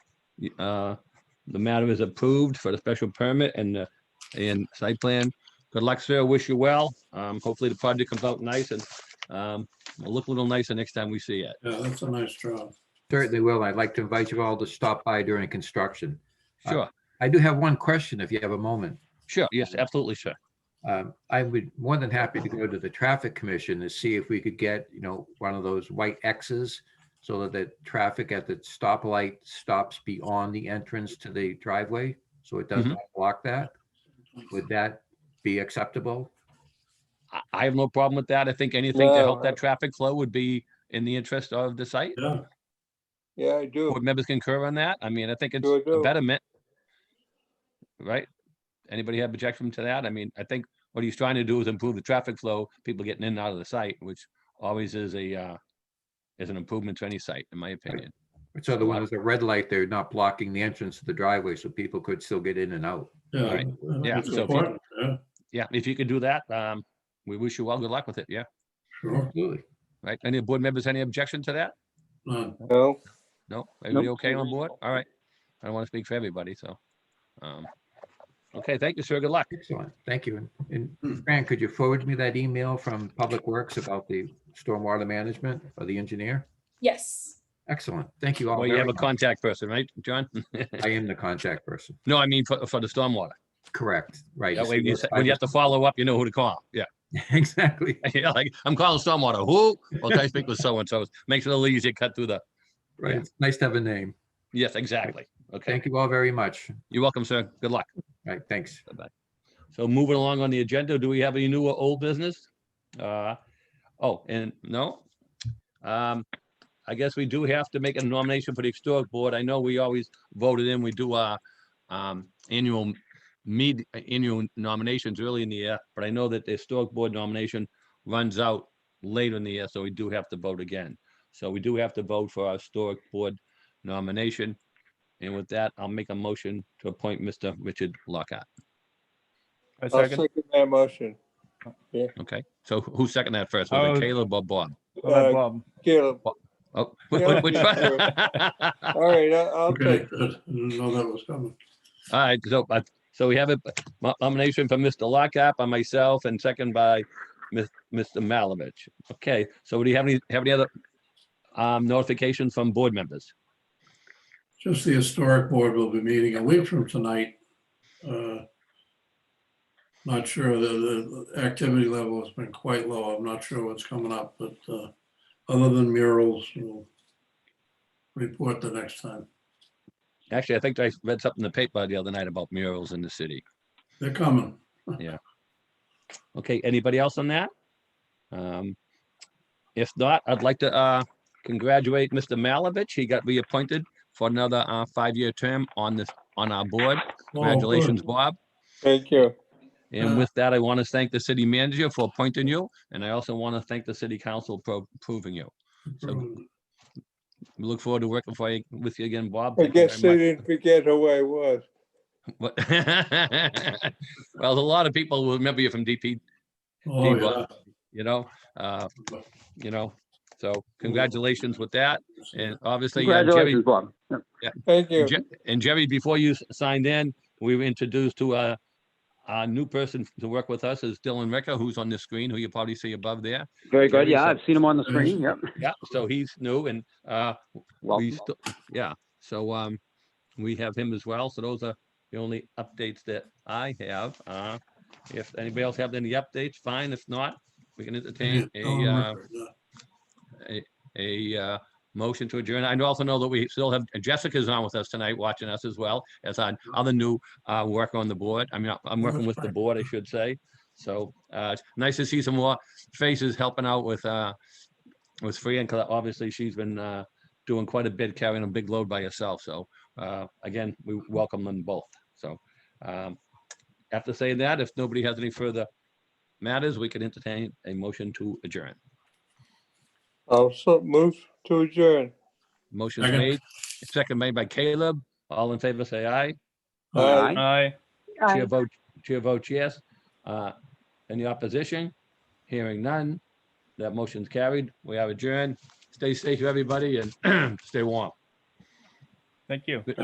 Uh, The matter is approved for the special permit and, the- and site plan. Good luck, sir. Wish you well. Um, Hopefully the project comes out nice and um, it'll look a little nicer next time we see it. Yeah, that's a nice job. Certainly will. I'd like to invite you all to stop by during construction. Sure, I do have one question if you have a moment. sure. Yes, absolutely, sir. Um, I would more than happy to go to the traffic commission to see if we could get, you know, one of those white X's so that the traffic at the stoplight stops beyond the entrance to the driveway, so it does Mhm. not block that. Would that be acceptable? I- I have no problem with that. I think anything to help No. that traffic flow would be in the interest of the site. Yeah, Yeah, I do. Board members concur on that? I mean, I think it's Sure a do. betterment. Right? Anybody have objection to that? I mean, I think what he's trying to do is improve the traffic flow, people getting in and out of the site, which always is a, uh, is an improvement to any site, in my opinion. So the one with the red light, they're not blocking the entrance to the driveway, so people could still get in and out. yeah. Right. Yeah, It's so if you- important, yeah, Yeah, if you could do that, um, we wish you well. Good luck with it. Yeah, sure. Absolutely. right. Any board members, any objection to that? None. No, No, everybody okay on board? All right. I don't want to speak for everybody, so. um, Okay, thank you, sir. Good luck. Excellent. Thank you. And- And Fran, could you forward me that email from Public Works about the stormwater management or the engineer? Yes. Excellent. Thank you all. Well, you have very a much. contact person, right, John? I am the contact person. No, I mean, for, for the stormwater. Correct, right. That it's way, the you most sa- when you have to follow up, you know who to call. Yeah, vibrant- Exactly. yeah. Like I'm calling stormwater. Who? Well, can I speak with so and so? Makes it a little easier. to Cut through the. Right. Yeah. It's nice to have a name. Yes, exactly. Okay, Thank you all very much. All you're welcome, sir. Good luck. right, thanks. So moving along on the agenda, do we have any new or old business? Uh, oh, and no. Um, I guess we do have to make a nomination for the historic board. I know we always voted in, we do our um, annual meet, annual nominations early in the year, but I know that the historic board nomination runs out later in the year, so we do have to vote again. So we do have to vote for our historic board nomination. And with that, I'll make a motion to appoint Mr. Richard Lockhart. I I'll second. second that motion. Okay, so wh- who seconded that first? Was Oh. it Caleb or Bob? Uh, Uh, Bob, Caleb, Oh, wh- Yeah, wh- which yeah, one? all right, I- I'll Okay, take, good. Didn't know that was coming. All right, so, I- so we have a mo- nomination from Mr. Lockhart by myself and second by Mis- Mr. Malovich. Okay, so do you have any, have any other um, notifications from board members? Just the historic board will be meeting a week from tonight. Uh, Not sure, the, the activity level has been quite low. I'm not sure what's coming up, but uh, other than murals, we'll report the next time. Actually, I think I read something in the paper the other night about murals in the city. They're coming. Okay, anybody else on that? Um, If not, I'd like to uh, congratulate Mr. Malovich. He got reappointed for another uh, five-year term on this, on our board. Oh, good. Congratulations, Bob. thank you. And Uh, with that, I want to thank the city manager for appointing you, and I also want to thank the city council for approving you. We look forward to working for you, with you again, Bob. I Thank you guess they very much. didn't forget who I was. What- Well, a lot of people will remember you from DP, Oh, Bob. yeah. you know, uh, you know, so congratulations with that. And obviously, uh, Jerry, Congratulations, Bob. Yeah. Thank you. Je- And Jerry, before you s- signed in, we were introduced to a, a new person to work with us is Dylan Ricker, who's on the screen, who you probably see above there. Very good. Jerry, Yeah, so- I've seen him on the screen. Yep. Yeah, so he's new and, uh, we Welcome. still, yeah, so, um, we have him as well. So those are the only updates that I have. Uh, if anybody else have any updates, fine. If not, we can entertain a, um, uh, a uh, motion to adjourn. I also know that we still have, Jessica's on with us tonight, watching us as well as on other new uh, work on the board. I mean, I'm working with the board, I should say. So uh, it's nice to see some more faces helping out with, uh, with Fran, because obviously she's been uh, doing quite a bit, carrying a big load by herself. So uh, again, we welcome them both. So um, after saying that, if nobody has any further matters, we can entertain a motion to adjourn. I'll so move to adjourn. Motion's Second. made, second made by Caleb. All in favor, say aye. Aye. aye. Chair vote, chair votes yes. Uh, Any opposition? Hearing none. That motion's carried. We have adjourned. Stay safe, everybody, and stay warm. Thank you.